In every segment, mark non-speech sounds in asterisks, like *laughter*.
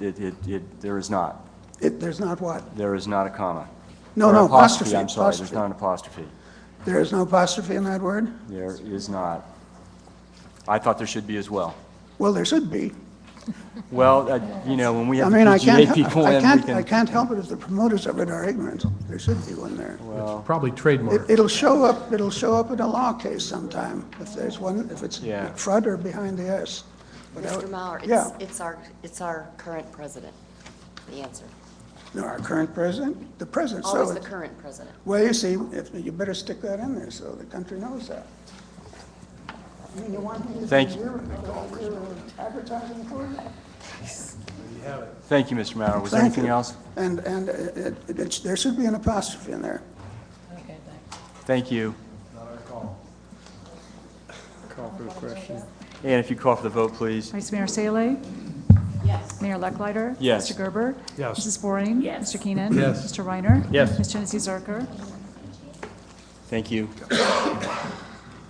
It, it, it, there is not. It, there's not what? There is not a comma. No, Or no, apostrophe, I'm sorry, there's apostrophe. not an apostrophe. There is no apostrophe in that word? There is not. I thought there should be as well. Well, there should be. Well, uh, you know, when we I have the mean, I can't, PGA he- people I in, we can't, I can, can't help it if the promoters of it are ignorant. There should be one there. Probably It, trademark. it'll show up, it'll show up in a law case sometime, if there's one, if it's Yeah. front or behind the S. But I would- Mr. Mauer, it's, Yeah, it's our, it's our current president, the answer. no, our current president, the president, so, Always the it's- current president. well, you see, if, you better stick that in there, so the country knows that. I mean, you want me to. Thank you. You're- you're Advertising for it? thank you, Mr. Maurer. Was there Thank anything you. else? And, and it, it- it's- there should be an apostrophe in there. Thank you. Not our call. Call for the question. And if you call for the vote, please. Vice Mayor Salee. Yes. Mayor Lucklider. Yes. Mr. Gerber. Yes. Mrs. Waring. Yes. Mr. Keenan. Yes. Mr. Reiner. Yes. Ms. Janice Zerker. Thank you.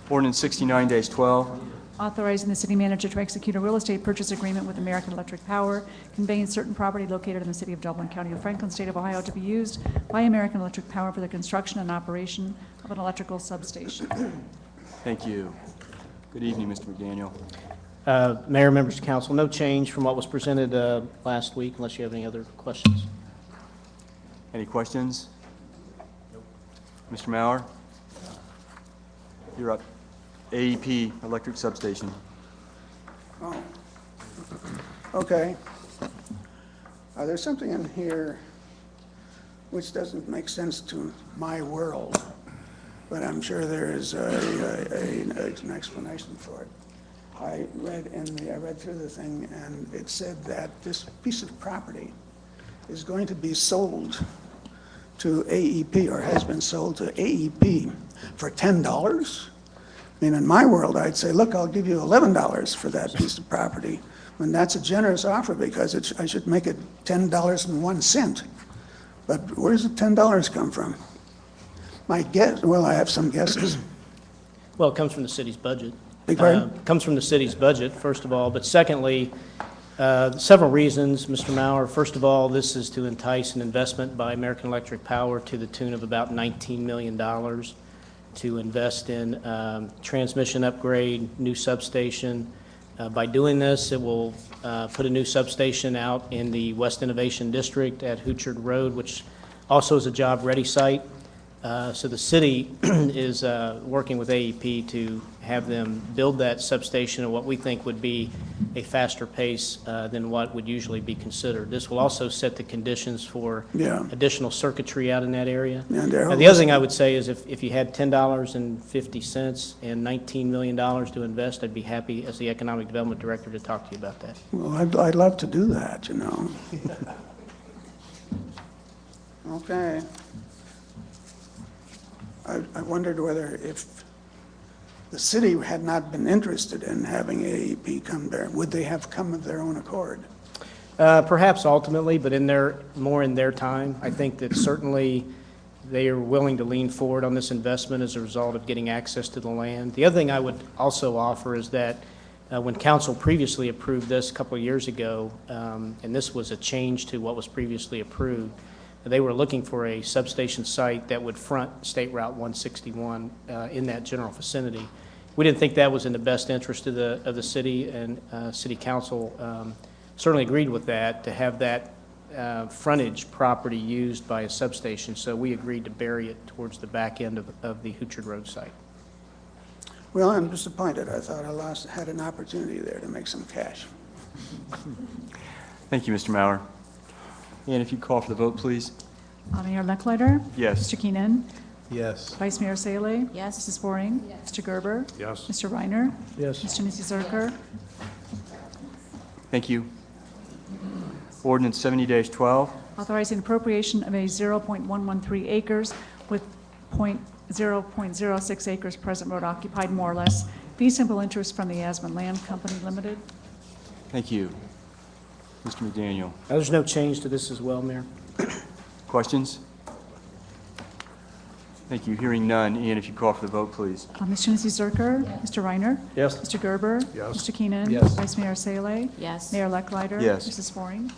Ordinance 69 days 12. Authorizing the city manager to execute a real estate purchase agreement with American Electric Power, conveying certain property located in the city of Dublin, County of Franklin, State of Ohio, to be used by American Electric Power for the construction and operation of an electrical substation. Thank you. Good evening, Mr. McDaniel. Uh, Mayor, members of council, no change from what was presented uh, last week unless you have any other questions. Any questions? Mr. Mauer? You're up. AEP Electric Substation. Oh. Okay. Uh, there's something in here which doesn't make sense to my world, but I'm sure there is a, a, a, an explanation for it. I read in the, I read through the thing, and it said that this piece of property is going to be sold to AEP, or has been sold to AEP for ten dollars? I mean, in my world, I'd say, look, I'll give you eleven dollars for that piece of property. And that's a generous offer because it, sh- I should make it ten dollars and one cent. But where does the ten dollars come from? My guess, well, I have some guesses. Well, it comes from the city's budget. Beg your pardon? Uh, Comes from the city's budget, first of all, but secondly, uh, several reasons, Mr. Mauer. First of all, this is to entice an investment by American Electric Power to the tune of about $19 million to invest in um, transmission upgrade, new substation. Uh, By doing this, it will uh, put a new substation out in the West Innovation District at Hootchard Road, which also is a job-ready site. Uh, So the city *clears throat* is uh, working with AEP to have them build that substation at what we think would be a faster pace uh, than what would usually be considered. This will also set the conditions for Yeah. additional circuitry out in that area. Yeah, Darryl, Now, The other thing I would say is if, if you had $10.50 and $19 million to invest, I'd be happy as the Economic Development Director to talk to you about that. Well, I'd, I'd love to do that, you know. Okay. I, I wondered whether if the city had not been interested in having AEP come there, would they have come of their own accord? Uh, Perhaps ultimately, but in their, more in their time. I think that certainly they are willing to lean forward on this investment as a result of getting access to the land. The other thing I would also offer is that uh, when council previously approved this a couple of years ago, um, and this was a change to what was previously approved, they were looking for a substation site that would front State Route 161 uh, in that general vicinity. We didn't think that was in the best interest of the, of the city, and uh, city council um, certainly agreed with that, to have that uh, frontage property used by a substation, so we agreed to bury it towards the back end of, of the Hootchard Road site. Well, I'm disappointed. I thought I lost, had an opportunity there to make some cash. Thank you, Mr. Mauer. And if you call for the vote, please. Uh, Mayor Lucklider. Yes. Mr. Keenan. Yes. Vice Mayor Salee. Yes. Mrs. Waring. Yes. Mr. Gerber. Yes. Mr. Reiner. Yes. Ms. Janice Zerker. Thank you. Ordinance 70 days 12. authorizing appropriation of a 0.113 acres with point- 0.06 acres present road occupied, more or less, fee simple interest from the Asman Land Company Limited. Thank you. Mr. McDaniel, Now, there's no change to this as well, Mayor? questions? Thank you. Hearing none. And if you call for the vote, please. Uh, Ms. Janice Zerker. Mr. Reiner. Yes. Mr. Gerber. Yes. Mr. Keenan. Yes. Vice Mayor Salee. Yes. Mayor Lucklider. Yes. Mrs. Waring.